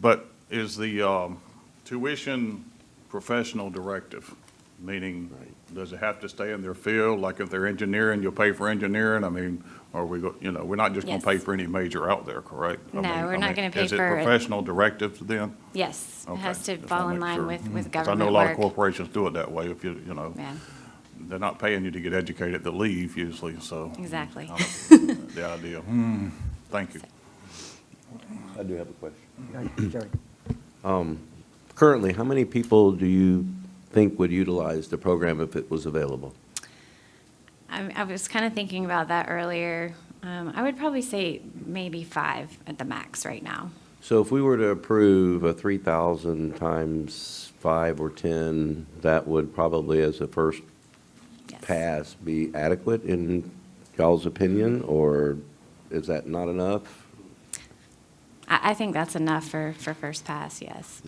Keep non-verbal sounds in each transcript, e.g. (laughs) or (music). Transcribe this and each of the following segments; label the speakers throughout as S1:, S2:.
S1: But is the um, tuition professional directive? Meaning, does it have to stay in their field? Like if they're engineering, you'll pay for engineering? I mean, are we, go- you know, we're not just going
S2: Yes.
S1: to pay for any major out there, correct? I
S2: No,
S1: mean- I
S2: we're not
S1: mean,
S2: gonna pay
S1: Is it
S2: for it.
S1: professional directives then?
S2: Yes, it
S1: Okay,
S2: has to
S1: just wanna
S2: fall in
S1: make
S2: line
S1: sure. Mm-hmm.
S2: with, with
S1: 'Cause
S2: government
S1: I know a lot of
S2: work.
S1: corporations do it that way. If you, you know,
S2: Yeah,
S1: they're not paying you to get educated, they leave usually, so.
S2: Exactly.
S1: I
S2: (laughs)
S1: don't- The idea. Hmm, thank you.
S3: I do have a question.
S4: Jerry.
S3: Currently, how many people do you think would utilize the program if it was available?
S2: I, I was kind of thinking about that earlier. Um, I would probably say maybe five at the max right now.
S3: So if we were to approve a 3,000 times 5 or 10, that would probably, as a first
S2: Yes.
S3: pass, be adequate in y'all's opinion, or is that not enough?
S2: I, I think that's enough for, for first pass, yes.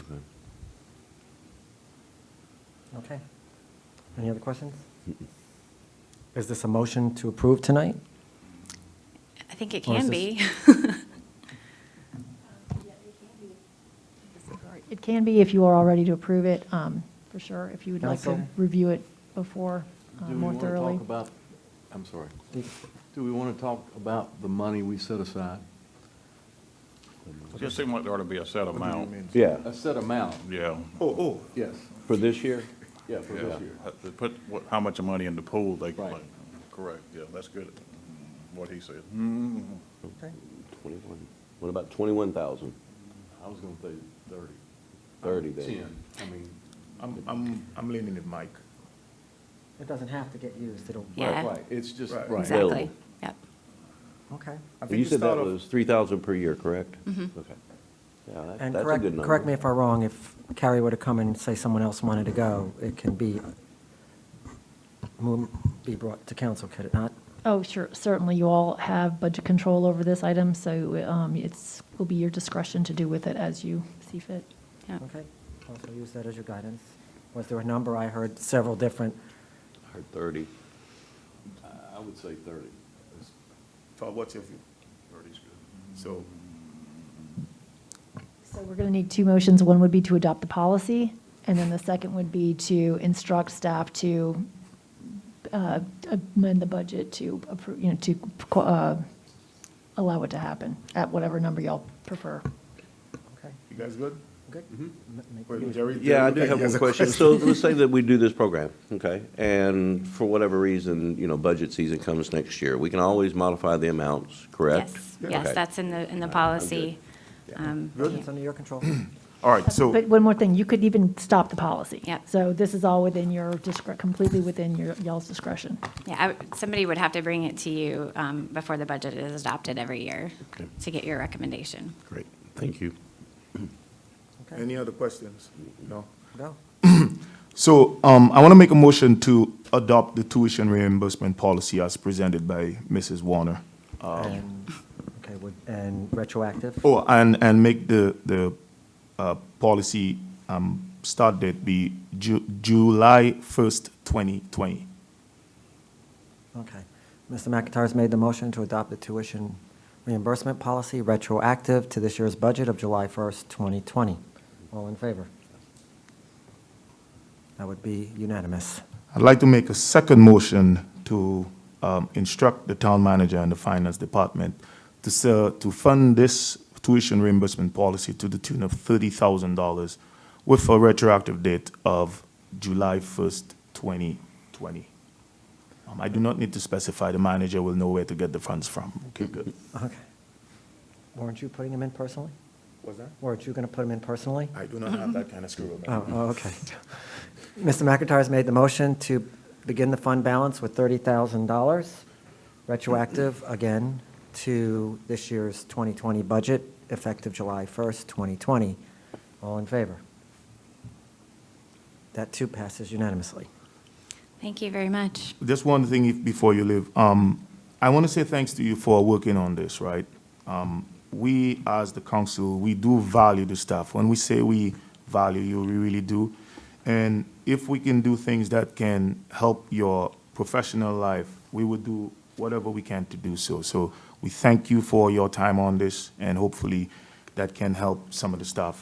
S4: Okay. Any other questions? Is this a motion to approve tonight?
S2: I think it
S4: Or is
S2: can be.
S5: It can be if you are all ready to approve it, um, for sure, if you would like to
S4: Counsel?
S5: review it before, uh,
S6: Do we
S5: more
S6: want to
S5: thoroughly.
S6: talk about, I'm sorry,
S4: The-
S6: do we want to talk about the money we set aside?
S1: It just seemed like there ought to be a set amount,
S3: Yeah.
S6: A set amount,
S1: yeah.
S6: yes,
S3: For this year?
S6: yeah, for
S1: Yeah,
S6: this year.
S1: uh, they put what, how much money in the pool they can
S6: Right.
S1: play. Correct, yeah, that's good, Mm-hmm. what he said.
S6: Mm-hmm.
S3: 21. What about 21,000?
S6: I was going to say thirty.
S3: 30 then.
S6: Ten, I mean,
S7: I'm, I'm, I'm leaning it, Mike.
S4: It doesn't have to get used, it'll.
S6: right,
S2: (laughs) Yeah,
S6: right, it's just,
S7: Right.
S6: right.
S2: exactly.
S3: Available.
S2: Yep.
S4: Okay.
S7: I
S3: And
S7: think
S3: You said that
S7: start off- Mm-hmm.
S3: was 3,000 per year, correct? Okay. Yeah, that- that's
S4: And
S3: a good
S4: correct,
S3: number.
S4: correct me if I'm wrong, if Carrie were to come and say someone else wanted to go, it can be, mo- be brought to council, could it not?
S5: Oh, sure, certainly, you all have budget control over this item, so, um, it's, will be your discretion to do with it as you see fit.
S2: yep.
S4: Okay, also use that as your guidance. Was there a number? I heard several different,
S3: I heard 30.
S6: I- I would say thirty. It's-
S7: For what's your view? So,
S5: So we're going to need two motions. One would be to adopt the policy, and then the second would be to instruct staff to uh, amend the budget to approve, you know, to uh, allow it to happen at whatever number y'all prefer. Uh,
S4: okay,
S7: you guys good?
S4: good. M- make
S7: Wait,
S4: use-
S7: Jerry,
S3: Yeah, I
S7: Jerry,
S3: do
S7: okay,
S3: have
S7: he has
S3: one
S7: a
S3: question. So let's say that we do this program, okay? And for whatever reason, you know, budget season comes next year. We can always modify the amounts, correct?
S2: Yes, yes,
S3: Okay.
S2: that's in the, in the
S3: All right, I'm good.
S2: policy.
S3: Yeah.
S2: Um, yeah.
S4: It's under your
S7: (clears throat)
S4: control.
S7: All right,
S5: But
S7: so,
S5: one more thing, you could even stop the policy.
S2: Yep.
S5: So this is all within your, discre- completely within your, y'all's discretion.
S2: Yeah, I would- somebody would have to bring it to you um, before the budget is adopted every year
S3: Okay.
S2: to get your recommendation.
S3: Great, thank you.
S4: Okay,
S7: any other questions? No?
S4: go.
S7: So, um, I want to make a motion to adopt the tuition reimbursement policy as presented by Mrs. Warner.
S4: And- Okay, would- and retroactive?
S7: Oh, and, and make the, the, uh, policy, um, start date be Ju- July first, twenty twenty.
S4: Okay. Mr. McIntyre's made the motion to adopt the tuition reimbursement policy retroactive to this year's budget of July 1st, 2020. All in favor? That would be unanimous.
S7: I'd like to make a second motion to um, instruct the town manager and the finance department to sell, to fund this tuition reimbursement policy to the tune of thirty thousand dollars with a retroactive date of July first, twenty twenty. Um, I do not need to specify, the manager will know where to get the funds from. Okay, good.
S4: Okay. Weren't you putting them in personally?
S7: What's that?
S4: Weren't you going to put them in personally?
S7: I do not have that kind of screw
S4: Oh, oh, okay. Mr. McIntyre's made the motion to begin the fund balance with $30,000, retroactive, again, to this year's 2020 budget, effective July 1st, 2020. All in favor? That too passes unanimously.
S2: Thank you very much.
S7: Just one thing if- before you leave. Um, I want to say thanks to you for working on this, right? Um, we, as the council, we do value the staff. When we say we value you, we really do. And if we can do things that can help your professional life, we will do whatever we can to do so. So we thank you for your time on this, and hopefully that can help some of the staff